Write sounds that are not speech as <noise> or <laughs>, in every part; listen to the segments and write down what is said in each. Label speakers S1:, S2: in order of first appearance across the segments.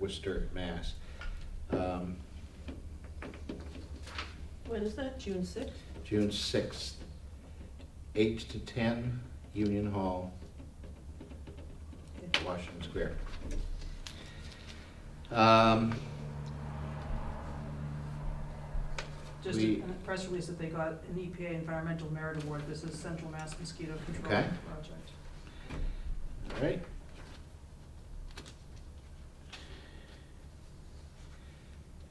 S1: Worcester, Mass. Um,
S2: When is that, June sixth?
S1: June sixth, eight to ten, Union Hall, Washington Square. Um,
S2: Just a
S1: We-
S2: a press release that they got an EPA Environmental Merit Award, this is Central Mass Mosquito Control
S1: Okay.
S2: Project.
S1: All right.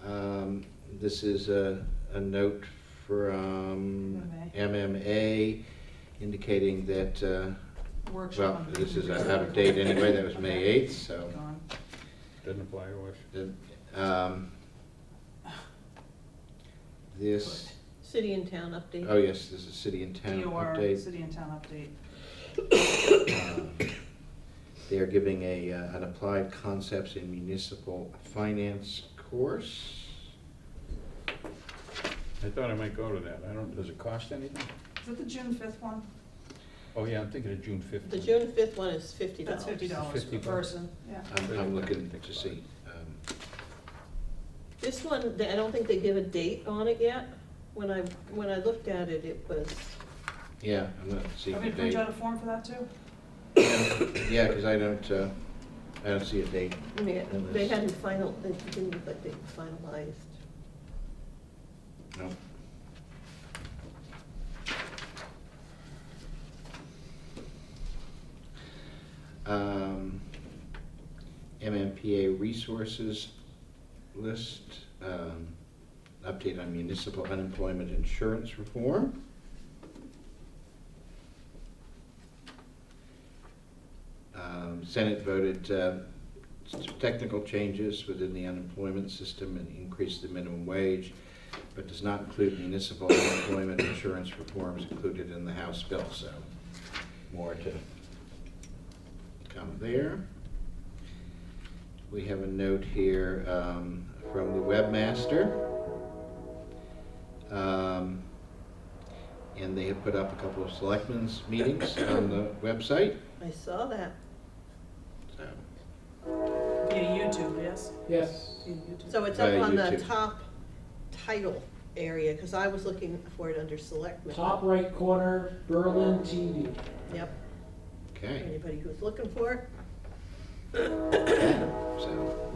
S1: Um, This is a, a note from MMA indicating that, uh,
S2: Workshop.
S1: well,
S2: on-
S1: this is out of date anyway, that was May
S2: Okay.
S1: 8th, so.
S2: Gone.
S3: Doesn't apply to us.
S1: the, um, This,
S4: City and town update.
S1: oh yes, this is city and town
S2: DOR,
S1: update.
S2: city and town update.
S1: Um, They are giving a, uh, an applied concepts in municipal finance course.
S3: I thought I might go to that. I don't, does it cost anything?
S2: Is that the June fifth one?
S3: Oh, yeah, I'm thinking of June fifteenth.
S4: The June fifth one is fifty dollars.
S2: That's fifty dollars per
S3: $50.
S2: person, yeah.
S1: I'm, I'm looking to see. um,
S4: This one, they- I don't think they give a date on it yet. When I, when I looked at it, it was,
S1: um, Yeah, I'm not seeing
S2: Want
S1: the
S2: me to print
S1: date.
S2: out a form for that too?
S1: Yeah, because I don't, uh, I don't see a date.
S4: I mean,
S1: It
S4: they
S1: was-
S4: hadn't final, they didn't look like they finalized.
S1: No. Um, MMPA resources list, um, update on municipal unemployment insurance reform. Um, Senate voted, uh, s- technical changes within the unemployment system and increased the minimum wage but does not include municipal <coughs> employment insurance reforms included in the House bill, so more to come there. We have a note here um, from the webmaster. Um, And they have put up a couple of selectmen's meetings on the website,
S4: I saw that.
S1: so.
S2: Via YouTube, yes?
S5: Yes.
S2: Via YouTube.
S4: So it's up
S1: Uh,
S4: on the
S1: YouTube.
S4: top title area, because I was looking for it under selectmen.
S5: Top right corner, Berlin TV.
S4: Yep,
S1: Okay,
S4: anybody who's looking for it.
S1: so.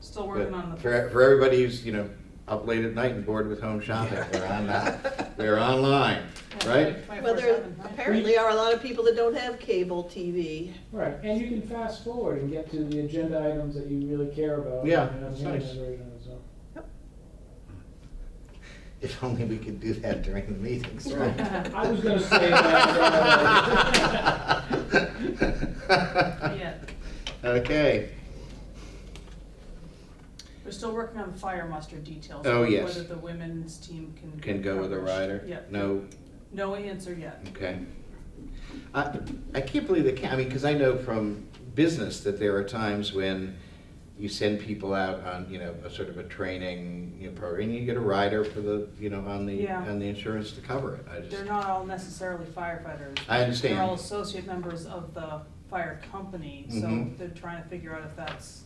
S2: Still working on the.
S1: For, for everybody who's, you know, up late at night and bored with home shopping, we're on, uh, we're online, right?
S4: Well, there
S2: 24/7, right?
S4: apparently are a lot of people that don't have cable TV.
S5: Right, and you can fast forward and get to the agenda items that you really care about.
S1: Yeah,
S5: you know,
S1: that's
S5: the anime
S1: nice.
S5: version as well.
S1: If only we could do that during the meetings, right?
S5: I was gonna
S1: <laughs>
S5: say that. uh, <laughs>
S2: Yeah.
S1: Okay,
S2: We're still working on the fire muster details.
S1: Oh, yes.
S2: Whether the women's team can.
S1: can go with a rider?
S2: Yeah.
S1: No,
S2: No answer yet.
S1: okay. I, I can't believe they can't, I mean, because I know from business that there are times when you send people out on, you know, a sort of a training, you know, program, and you get a rider for the, you know, on the,
S2: Yeah.
S1: on the insurance to cover it. I just,
S2: They're not all necessarily firefighters.
S1: I understand.
S2: They're all associate members of the fire company, so
S1: Mhm.
S2: they're trying to figure out if that's,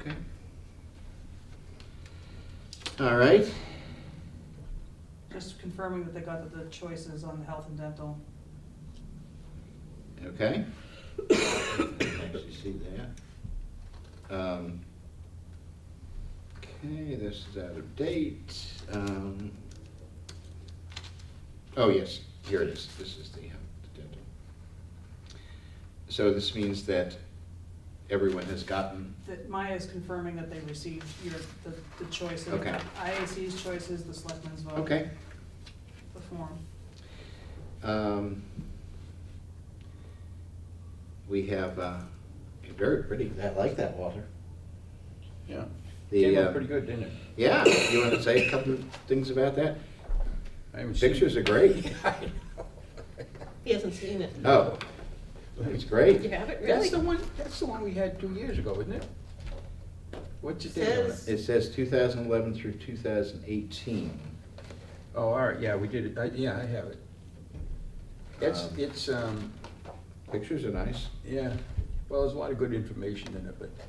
S1: Okay. All right,
S2: just confirming that they got the choices on the health and dental.
S1: okay. <coughs> I can Actually see that. Um, Okay, this is out of date. Um, Oh, yes, here it is. This is the uh, the dental. So this means that everyone has gotten,
S2: That Maya is confirming that they received your, the, the choices.
S1: Okay.
S2: IAC's choices, the selectmen's vote.
S1: okay.
S2: The form.
S1: Um, We have uh, a very pretty, I like that, Walter.
S3: Yeah.
S1: The,
S3: Came
S1: uh,
S3: out pretty good, didn't it?
S1: Yeah, you want to say a couple of things about that?
S3: I haven't seen it.
S1: Pictures are great.
S4: He hasn't seen it.
S1: Oh, it's great.
S4: You have it, really?
S3: That's the one, that's the one we had two years ago, isn't it? What's the date on
S4: Says-
S3: it?
S1: It says 2011 through 2018.
S3: Oh, all right, yeah, we did it. I- Yeah, I have it. It's,
S1: Um,
S3: it's, um,
S1: Pictures are nice.
S3: yeah, well, there's a lot of good information in it, but